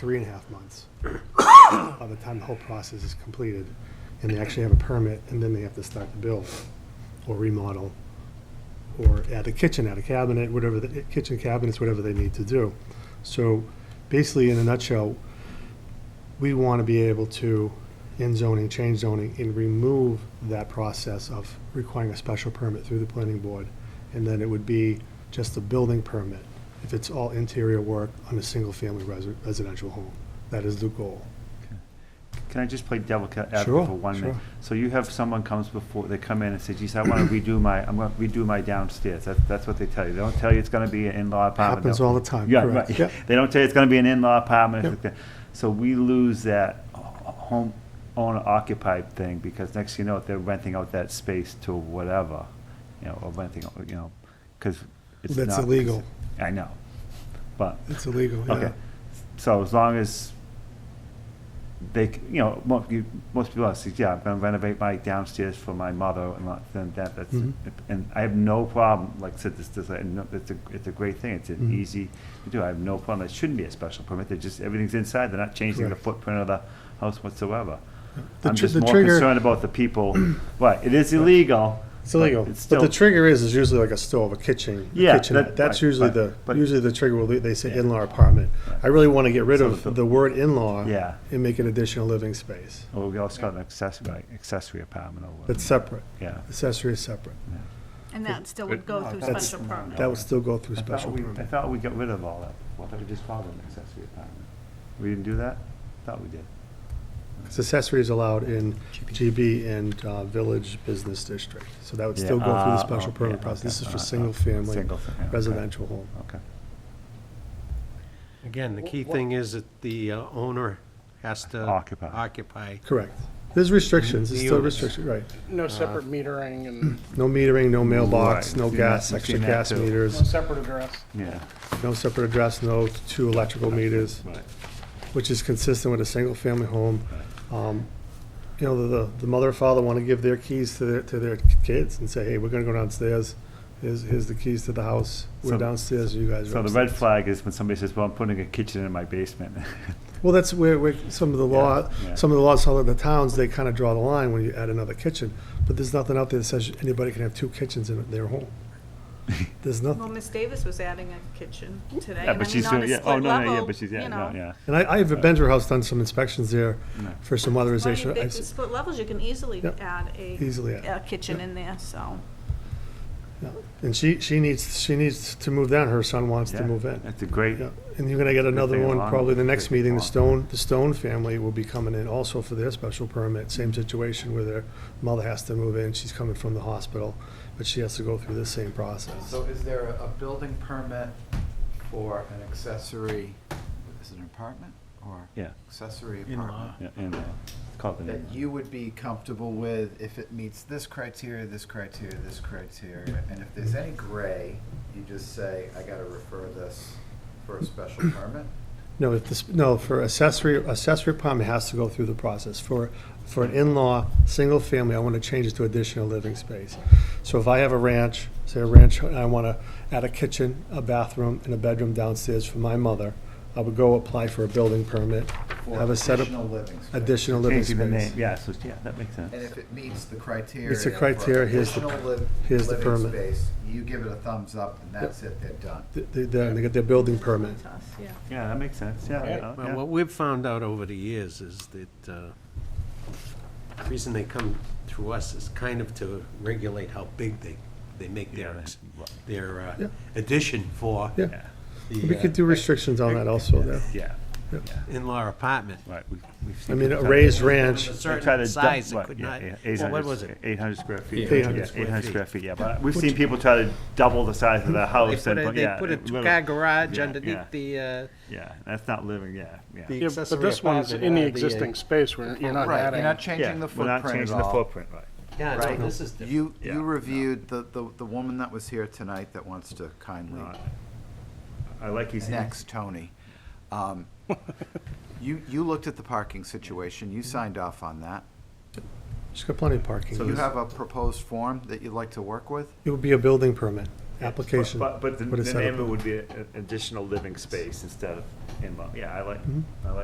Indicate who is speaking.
Speaker 1: three and a half months by the time the whole process is completed, and they actually have a permit, and then they have to start to build or remodel or add a kitchen, add a cabinet, whatever, the kitchen cabinets, whatever they need to do. So basically, in a nutshell, we want to be able to, in zoning, change zoning, and remove that process of requiring a special permit through the planning board. And then it would be just a building permit if it's all interior work on a single-family resi- residential home. That is the goal.
Speaker 2: Can I just play devil ca- advocate
Speaker 1: Sure,
Speaker 2: for one minute?
Speaker 1: sure.
Speaker 2: So you have someone comes before, they come in and say, geez, I want to redo my, I'm going to redo my downstairs. That's, that's what they tell you. They don't tell you it's going to be an in-law apartment.
Speaker 1: Happens
Speaker 2: No.
Speaker 1: all the time,
Speaker 2: Yeah,
Speaker 1: correct.
Speaker 2: right.
Speaker 1: Yep.
Speaker 2: They don't tell you it's going to be an in-law apartment.
Speaker 1: Yep.
Speaker 2: it's like that. So we lose that h- home owner occupied thing because next you know, it, they're renting out that space to whatever, you know, or renting, out, you know, because it's not.
Speaker 1: That's illegal.
Speaker 2: I know. But
Speaker 1: It's illegal, yeah.
Speaker 2: Okay, so as long as they, c- you know, mo- you- most people are, say, yeah, I'm gonna renovate my downstairs for my mother and lot- then that, that's,
Speaker 1: Mhm.
Speaker 2: and I have no problem, like I said, this, this, I know- it's a, it's a great thing, it's an
Speaker 1: Mhm.
Speaker 2: easy to do, I have no problem, it shouldn't be a special permit, they're just, everything's inside, they're not changing the
Speaker 1: Correct.
Speaker 2: footprint of the house whatsoever.
Speaker 1: The
Speaker 2: I'm
Speaker 1: tr-
Speaker 2: just
Speaker 1: the
Speaker 2: more
Speaker 1: trigger-
Speaker 2: concerned about the people, right, it is illegal.
Speaker 1: It's
Speaker 2: but
Speaker 1: illegal,
Speaker 2: It's
Speaker 1: but
Speaker 2: still,
Speaker 1: the trigger is, is usually like a stove, a kitchen, a
Speaker 2: Yeah,
Speaker 1: kitchenette.
Speaker 2: that-
Speaker 1: That's
Speaker 2: right,
Speaker 1: usually
Speaker 2: right,
Speaker 1: the,
Speaker 2: but-
Speaker 1: usually the trigger, will be- they say
Speaker 2: Yeah.
Speaker 1: in-law apartment. I really want to get rid
Speaker 2: So
Speaker 1: of
Speaker 2: the-
Speaker 1: the word in-law
Speaker 2: Yeah.
Speaker 1: and make an additional living space.
Speaker 2: well, we also got an accessory, accessory apartment or
Speaker 1: That's
Speaker 2: whatever,
Speaker 1: separate,
Speaker 2: yeah.
Speaker 1: accessory is separate.
Speaker 3: And that still would go through
Speaker 2: That's-
Speaker 3: special permit.
Speaker 1: That would still go through
Speaker 2: I thought
Speaker 1: special
Speaker 2: we, I
Speaker 1: permit.
Speaker 2: thought we got rid of all that. Well, I thought we just called it an accessory apartment. We didn't do that? I Thought we did.
Speaker 1: 'Cause accessory is allowed in GB and uh, Village Business District. So that would still go through the
Speaker 2: Ah,
Speaker 1: special
Speaker 2: okay,
Speaker 1: permit process. This is
Speaker 2: okay,
Speaker 1: for
Speaker 2: uh, uh,
Speaker 1: single-family
Speaker 2: single fa- yeah, okay,
Speaker 1: residential home.
Speaker 2: Okay.
Speaker 4: Again, the key thing is that the uh, owner has to.
Speaker 2: Occupy.
Speaker 4: Occupy.
Speaker 1: Correct. There's restrictions, there's still
Speaker 4: Units.
Speaker 1: restrictions, right.
Speaker 5: No separate metering and
Speaker 1: No metering, no mailbox,
Speaker 2: Right,
Speaker 1: no
Speaker 2: seen
Speaker 1: gas,
Speaker 2: that-
Speaker 1: extra
Speaker 2: seen that
Speaker 1: gas
Speaker 2: too.
Speaker 5: no
Speaker 1: meters,
Speaker 5: separate address.
Speaker 2: Yeah.
Speaker 1: no separate address, no two electrical meters.
Speaker 2: Right.
Speaker 1: which is consistent with a single-family home. Um, You know, the, the mother or father want to give their keys to their, to their kids and say, hey, we're going to go downstairs. Here's, here's the keys to the house. We're
Speaker 2: So-
Speaker 1: downstairs, you guys are
Speaker 2: So the red
Speaker 1: upstairs.
Speaker 2: flag is when somebody says, well, I'm putting a kitchen in my basement.
Speaker 1: Well, that's where, where some of the law,
Speaker 2: Yeah, yeah.
Speaker 1: some of the laws, some of the towns, they kind of draw the line when you add another kitchen. But there's nothing out there that says anybody can have two kitchens in their home. There's
Speaker 3: Well,
Speaker 1: nothing.
Speaker 3: Miss Davis was adding a kitchen today.
Speaker 2: Yeah,
Speaker 3: and I
Speaker 2: but she's
Speaker 3: mean, on
Speaker 2: doing,
Speaker 3: a
Speaker 2: yeah, oh,
Speaker 3: split
Speaker 2: no, no, yeah,
Speaker 3: level,
Speaker 2: but she's,
Speaker 3: you
Speaker 2: yeah, no,
Speaker 3: know.
Speaker 2: yeah.
Speaker 1: And I, I have at Benzer House done some inspections there
Speaker 2: No.
Speaker 1: for some
Speaker 3: Well, you-
Speaker 1: weatherization.
Speaker 3: they-
Speaker 1: I've
Speaker 3: the
Speaker 1: s-
Speaker 3: Split levels, you can easily
Speaker 1: Yep.
Speaker 3: add a,
Speaker 1: Easily add.
Speaker 3: a kitchen in there, so.
Speaker 1: And she, she needs, she needs to move down. Her son wants to
Speaker 2: Yeah,
Speaker 1: move in.
Speaker 2: That's a great,
Speaker 1: Yeah, and you're gonna get another
Speaker 2: thing
Speaker 1: one
Speaker 2: along
Speaker 1: probably the
Speaker 2: with
Speaker 1: next
Speaker 2: the
Speaker 1: meeting, the
Speaker 2: farm.
Speaker 1: Stone, the Stone family will be coming in also for their special permit, same situation where their mother has to move in, she's coming from the hospital, but she has to go through the same process.
Speaker 6: So is there a a building permit for an accessory, is it an apartment or?
Speaker 2: Yeah.
Speaker 6: Accessory
Speaker 4: In-law.
Speaker 6: apartment?
Speaker 2: yeah, and, uh, call it
Speaker 6: That you would be comfortable with if it meets this criteria, this criteria, this criteria? And if there's any gray, you just say, I gotta refer this for a special permit?
Speaker 1: No, if this, no, for accessory, accessory apartment has to go through the process. For, for an in-law, single family, I want to change it to additional living space. So if I have a ranch, say a ranch, and I want to add a kitchen, a bathroom, and a bedroom downstairs for my mother, I would go apply for a building permit,
Speaker 6: for
Speaker 1: have a set of
Speaker 6: Additional living space.
Speaker 1: additional living
Speaker 2: Changing the name,
Speaker 1: space.
Speaker 2: yeah, so, yeah, that makes sense.
Speaker 6: And if it meets the criteria.
Speaker 1: Meets the
Speaker 6: for
Speaker 1: criteria, here's the-
Speaker 6: additional liv-
Speaker 1: here's the
Speaker 6: living
Speaker 1: permit.
Speaker 6: space, You give it a thumbs up and that's it, they're done.
Speaker 1: Th- th- Then they get their building permit.
Speaker 3: it's us, yeah.
Speaker 2: Yeah, that makes sense, yeah,
Speaker 5: Right.
Speaker 2: yeah,
Speaker 4: Well,
Speaker 2: yeah.
Speaker 4: what we've found out over the years is that uh, the reason they come through us is kind of to regulate how big they, they make their, ex- their uh,
Speaker 1: Yeah.
Speaker 4: addition for
Speaker 1: Yeah.
Speaker 2: Yeah,
Speaker 1: We
Speaker 4: the
Speaker 1: could do restrictions on that also there.
Speaker 2: yeah,
Speaker 4: uh, in-law apartment.
Speaker 2: right. we- we've
Speaker 1: I
Speaker 2: seen
Speaker 1: mean,
Speaker 2: it.
Speaker 1: a raised ranch,
Speaker 4: A
Speaker 2: They try to
Speaker 4: certain
Speaker 2: dump-
Speaker 4: size, it
Speaker 2: right,
Speaker 4: could
Speaker 2: yeah,
Speaker 4: not,
Speaker 2: yeah,
Speaker 4: well,
Speaker 2: 800
Speaker 4: what was it?
Speaker 2: 800 square feet.
Speaker 4: Yeah,
Speaker 1: 800
Speaker 2: Yeah,
Speaker 4: square
Speaker 2: 800
Speaker 4: feet.
Speaker 2: square feet, yeah, but we've seen people try to double the size of their
Speaker 4: They
Speaker 2: house
Speaker 4: put
Speaker 2: and,
Speaker 4: a,
Speaker 2: but
Speaker 4: they
Speaker 2: yeah.
Speaker 4: put a
Speaker 2: it really-
Speaker 4: two-car garage
Speaker 2: yeah,
Speaker 4: underneath
Speaker 2: yeah,
Speaker 4: the, uh,
Speaker 2: Yeah, that's not living, yeah, yeah.
Speaker 4: the
Speaker 5: Yeah, but
Speaker 4: accessory
Speaker 5: this one's
Speaker 4: apartment,
Speaker 5: in the
Speaker 4: uh,
Speaker 5: existing space where you're not
Speaker 6: Right,
Speaker 5: adding.
Speaker 6: you're not
Speaker 2: Yeah,
Speaker 6: changing the
Speaker 2: We're not
Speaker 6: footprint at
Speaker 2: changing the
Speaker 6: all.
Speaker 2: footprint, right.
Speaker 4: Yeah,
Speaker 6: Right.
Speaker 4: no, this is different.
Speaker 6: You,
Speaker 2: Yeah.
Speaker 6: you reviewed the, the, the woman that was here tonight that wants to kindly,
Speaker 2: Not- I like he's.
Speaker 6: next, Tony. Um, You, you looked at the parking situation, you signed off on that.
Speaker 1: she's got plenty of parking.
Speaker 2: Mm-hmm. So
Speaker 6: You
Speaker 2: this-
Speaker 6: have a proposed form that you'd like to work with?
Speaker 1: It would be a building permit. application.
Speaker 2: But, but the
Speaker 1: what
Speaker 2: the
Speaker 1: it's set up
Speaker 2: name of it would be a- an additional living space instead of in-law. Yeah, I like,
Speaker 1: Mhm.
Speaker 2: I like